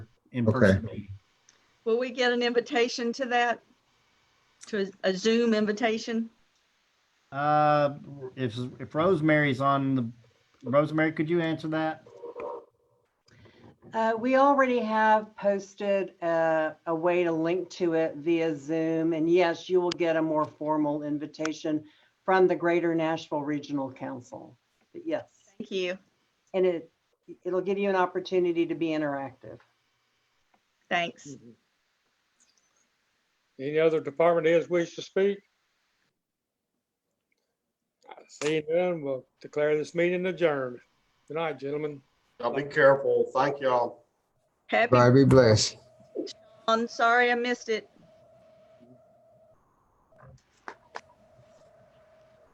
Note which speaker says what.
Speaker 1: in-person
Speaker 2: Okay.
Speaker 1: meeting.
Speaker 3: Will we get an invitation to that? To a Zoom invitation?
Speaker 1: Uh, if, if Rosemary's on the, Rosemary, could you answer that?
Speaker 4: Uh, we already have posted a, a way to link to it via Zoom. And yes, you will get a more formal invitation from the Greater Nashville Regional Council. But yes,
Speaker 3: Thank you.
Speaker 4: and it, it'll give you an opportunity to be interactive.
Speaker 3: Thanks.
Speaker 5: Any other department heads wish to speak? Seeing none, we'll declare this meeting adjourned. Good night, gentlemen.
Speaker 6: Y'all be careful. Thank y'all.
Speaker 3: Happy,
Speaker 2: Everybody be blessed.
Speaker 3: I'm sorry I missed it.